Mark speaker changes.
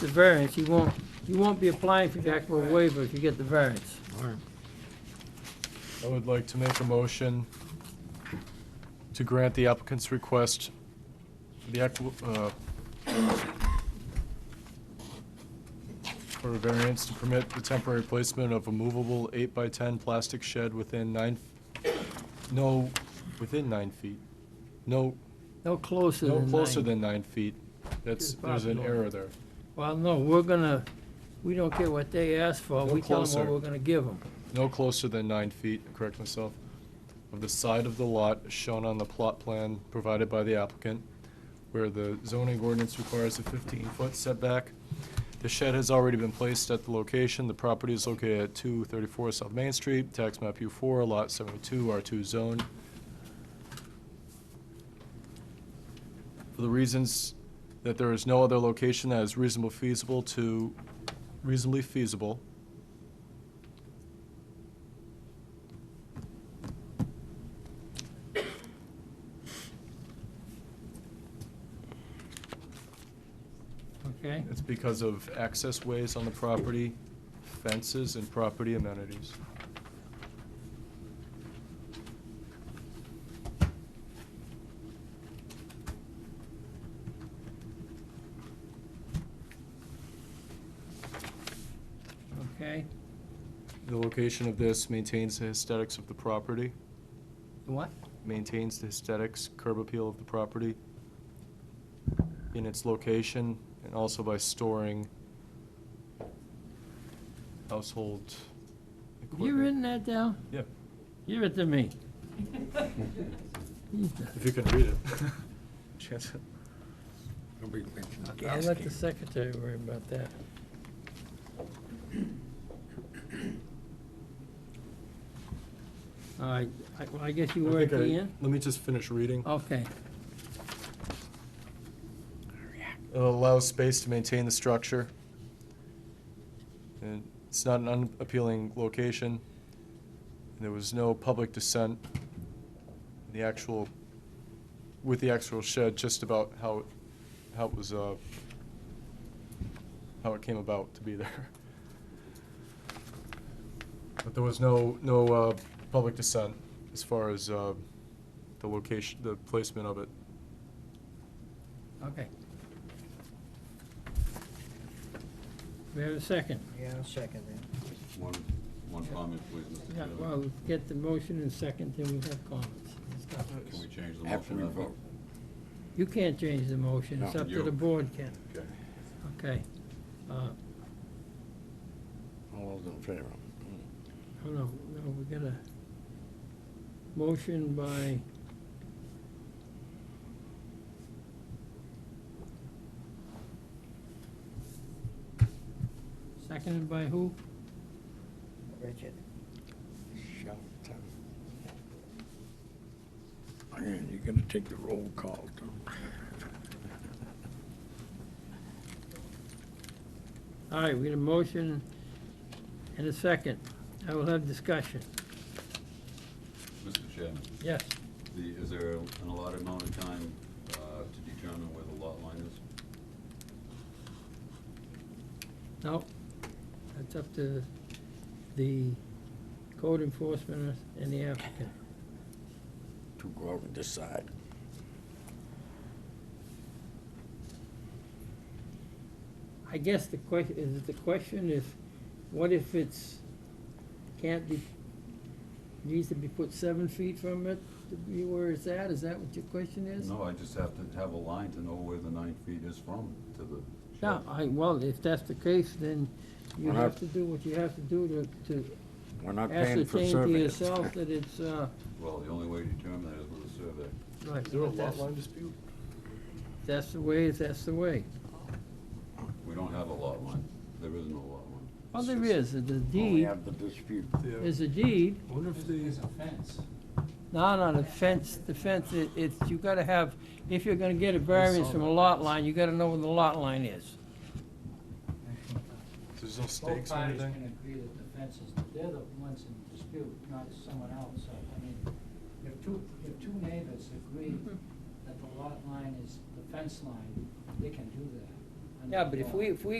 Speaker 1: the variance, you won't, you won't be applying for the actual waiver if you get the variance.
Speaker 2: I would like to make a motion to grant the applicant's request, for the, acqui- uh, for a variance to permit the temporary placement of a movable eight-by-ten plastic shed within nine, no, within nine feet. No,
Speaker 1: No closer than
Speaker 2: no
Speaker 1: nine.
Speaker 2: closer than nine feet. That's, there's an error there.
Speaker 1: Well, no, we're gonna, we don't care what they ask for,
Speaker 2: No
Speaker 1: we tell them
Speaker 2: closer.
Speaker 1: what we're gonna give them.
Speaker 2: No closer than nine feet, correct myself, of the side of the lot shown on the plot plan provided by the applicant, where the zoning ordinance requires a 15-foot setback. The shed has already been placed at the location. The property is located at 234 South Main Street, tax map U4, lot 72, R2 zone. For the reasons that there is no other location that is reasonable feasible to, reasonably feasible
Speaker 1: Okay,
Speaker 2: It's because of access ways on the property, fences, and property amenities.
Speaker 1: okay.
Speaker 2: The location of this maintains the aesthetics of the property,
Speaker 1: What?
Speaker 2: maintains the aesthetics, curb appeal of the property in its location, and also by storing household equipment.
Speaker 1: You written that down?
Speaker 2: Yeah,
Speaker 1: Give it to me.
Speaker 2: if you can read it. Chance-
Speaker 3: Nobody mentioned the
Speaker 1: I'll
Speaker 3: gas
Speaker 1: let the
Speaker 3: can.
Speaker 1: secretary worry about that. All right, I- well, I guess you
Speaker 2: I
Speaker 1: were at
Speaker 2: think
Speaker 1: the
Speaker 2: I-
Speaker 1: end?
Speaker 2: Let me just finish reading.
Speaker 1: Okay,
Speaker 2: It allows space to maintain the structure. And it's not an unappealing location. There was no public dissent. The actual, with the actual shed, just about how, how it was, uh, how it came about to be there. But there was no, no, uh, public dissent as far as, uh, the location, the placement of it.
Speaker 1: okay. We have a second.
Speaker 4: Yeah, I'll second that.
Speaker 3: One, one comment, please, Mr.
Speaker 1: Yeah,
Speaker 3: Chairman.
Speaker 1: well, we get the motion and second, then we have comments.
Speaker 3: Can we change the motion?
Speaker 4: After we
Speaker 3: I think?
Speaker 4: vote.
Speaker 1: You can't change the motion, it's
Speaker 3: No.
Speaker 1: up to the
Speaker 3: You.
Speaker 1: board, Ken.
Speaker 3: Okay.
Speaker 1: Okay. Uh,
Speaker 4: All those in favor?
Speaker 1: Hold on, no, we got a motion by seconded by who?
Speaker 4: Richard? Shelton. Man, you're gonna take the roll call, Tom.
Speaker 1: All right, we got a motion and a second. I will have discussion.
Speaker 3: Mr. Chairman,
Speaker 1: Yes.
Speaker 3: the, is there an allotted amount of time, uh, to determine where the lot line is?
Speaker 1: No? That's up to the code enforcement and the applicant.
Speaker 4: To go out and decide.
Speaker 1: I guess the question, is it the question if, what if it's, can't be, needs to be put seven feet from it to be where it's at, is that what your question is?
Speaker 3: No, I just have to have a line to know where the nine feet is from to the shed.
Speaker 1: No, I, well, if that's the case, then you
Speaker 4: We're not-
Speaker 1: have to do what you have to do to,
Speaker 4: We're
Speaker 1: to
Speaker 4: not paying for
Speaker 1: ascertain to
Speaker 4: surveys.
Speaker 1: yourself that it's, uh,
Speaker 3: Well, the only way to determine that is with a survey.
Speaker 1: right,
Speaker 2: Is there a lot
Speaker 1: that's-
Speaker 2: line dispute?
Speaker 1: That's the way, that's the way.
Speaker 3: We don't have a lot line. There is no lot line.
Speaker 1: Well, there is, the
Speaker 4: We
Speaker 1: deed,
Speaker 4: have the dispute.
Speaker 2: Yeah.
Speaker 1: there's a deed,
Speaker 2: I wonder if the.
Speaker 1: No, no, the fence, the fence, it- it's, you gotta have, if you're gonna get a variance from a lot line, you gotta know where the lot line is.
Speaker 2: There's no stakes or anything?
Speaker 5: agree that the fence is, they're the ones in dispute, not someone else. So, I mean, if two, if two neighbors agree
Speaker 1: Mm-hmm.
Speaker 5: that the lot line is the fence line, they can do that. under
Speaker 1: Yeah, but if
Speaker 5: the law.
Speaker 1: we, if we